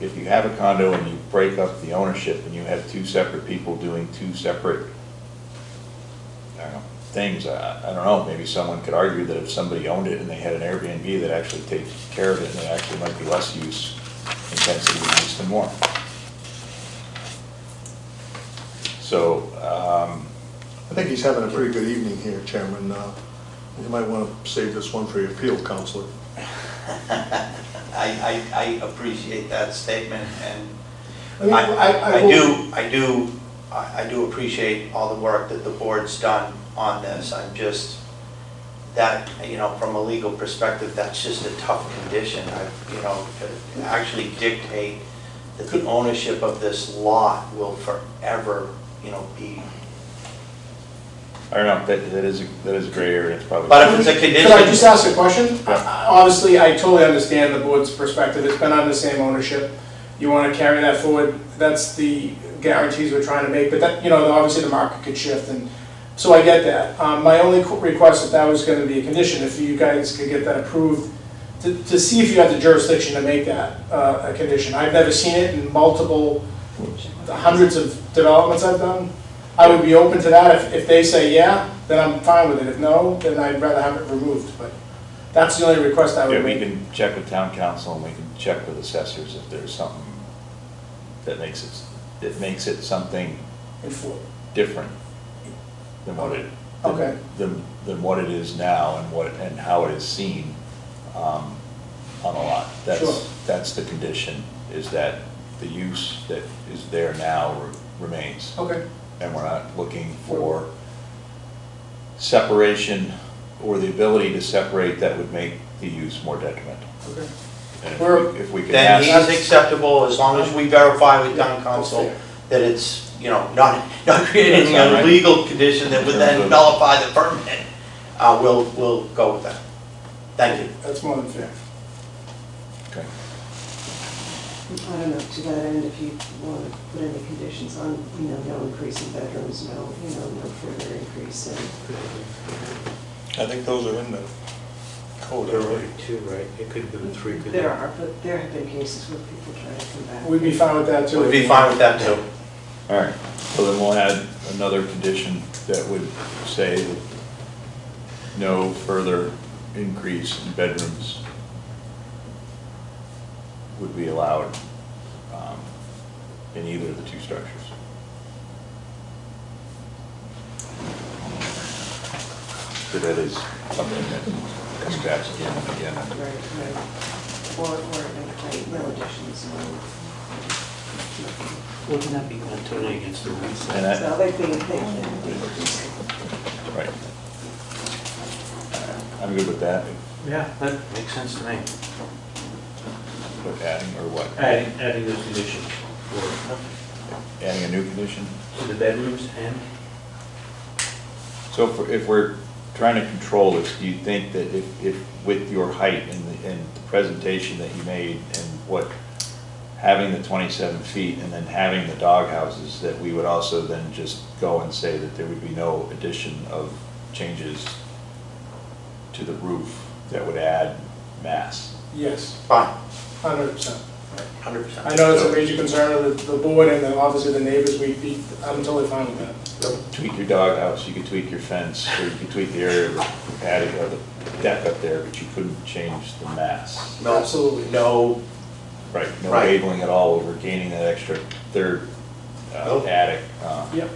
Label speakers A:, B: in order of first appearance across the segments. A: if you have a condo and you break up the ownership and you have two separate people doing two separate, I don't know, things, I, I don't know, maybe someone could argue that if somebody owned it and they had an Airbnb that actually takes care of it, and it actually might be less use intensity use than more. So, um,
B: I think he's having a pretty good evening here, Chairman. Uh, You might want to save this one for your appeal, Counselor.
C: I, I, I appreciate that statement, and
B: I mean,
C: I, I- I
B: will-
C: do, I do, I I do appreciate all the work that the board's done on this, I'm just, that, you know, from a legal perspective, that's just a tough condition, I, you know, to actually dictate that the ownership of this lot will forever, you know, be,
A: I don't know, that, that is, a- that is a gray area, it's probably.
C: But if it's a condition-
D: Could I just ask a question?
A: Yeah.
D: I- I- Obviously, I totally understand the board's perspective, it's been under the same ownership. You want to carry that forward, that's the guarantees we're trying to make, but that, you know, obviously the market could shift and, so I get that. Um, My only qu- request, if that was going to be a condition, if you guys could get that approved, to, to see if you have the jurisdiction to make that uh, a condition. I've never seen it in multiple, hundreds of developments I've done. I would be open to that, if, if they say yeah, then I'm fine with it, if no, then I'd rather have it removed, but that's the only request I
A: Yeah,
D: would
A: we
D: make.
A: can check with town council and we can check with assessors if there's something that makes it, that makes it something
D: And for-
A: different than what it, than-
D: Okay.
A: than, than what it is now and what, and how it is seen um, on a lot.
D: Sure.
A: That's, that's the condition, is that the use that is there now re- remains.
D: Okay,
A: And we're not looking for separation or the ability to separate that would make the use more detrimental.
D: okay.
A: And if
D: We're-
A: we- if we can
C: then
A: ask,
C: he's acceptable, as long as we verify with town council
D: Okay.
C: that it's, you know, not, not creating any
A: That's all right.
C: illegal condition that would then nullify the permit, uh, we'll, we'll go with that. Thank you.
D: That's more than fair.
A: okay.
E: I don't know, to that end, if you want to put any conditions on, you know, no increase in bedrooms, no, you know, no further increase in,
B: I think those are in the code
F: There were
B: already.
F: two, right? It could have been three, couldn't it?
E: there are, but there have been cases where people try to come back.
D: We'd be fine with that too.
C: We'd be fine with that too.
A: All right, so then we'll add another condition that would say that no further increase in bedrooms would be allowed um, in either of the two structures. So that is something that comes back again and again.
E: Right, right. Or, or like, no additions, no. nothing.
F: Wouldn't that be kind of totally against the rules?
A: And I-
E: So they think, they think people just.
A: Right. I'm good with that,
F: Yeah, that makes sense to me.
A: with adding or what?
F: Adding, adding those conditions for
A: Adding a new condition?
F: the bedrooms and,
A: So if we're- if we're trying to control this, do you think that if, if with your height and the, and the presentation that you made and what, having the 27 feet and then having the dog houses, that we would also then just go and say that there would be no addition of changes to the roof that would add mass?
D: Yes,
C: Fine,
D: hundred percent.
C: hundred
D: I
C: percent.
D: know it's a major concern of the, the board and then obviously the neighbors, we'd be, I'm totally fine with that.
A: Tweak your dog house, you could tweak your fence, or you could tweak the area of the patio, or the deck up there, but you couldn't change the mass.
D: Absolutely.
C: No,
A: Right, no
C: Right.
A: labeling at all, we're gaining that extra third uh,
C: Nope.
A: attic uh,
D: Yep,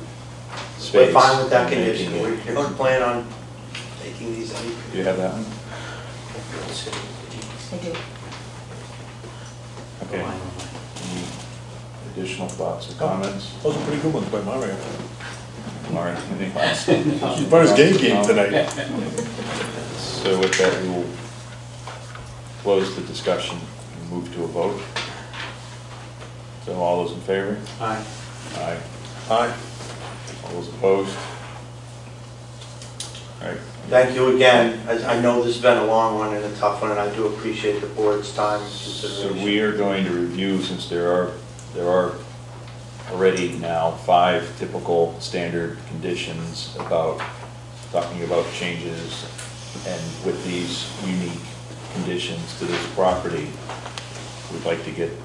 A: space.
C: we're fine with that
A: and making
C: condition.
A: it-
C: We don't plan on taking these any.
A: You have that one?
E: I do.
A: Okay. Any additional thoughts or comments?
B: Those are pretty good ones by Mario.
A: Lauren, anything else?
B: He's brought his game game tonight.
A: So with that, we will close the discussion and move to a vote. So all those in favor?
F: aye.
A: Aye. Aye. All those opposed? All right,
C: Thank you again, I, I know this has been a long one and a tough one, and I do appreciate the board's time and
A: So
C: consideration.
A: we are going to review, since there are, there are already now five typical standard conditions about, talking about changes, and with these unique conditions to this property, we'd like to get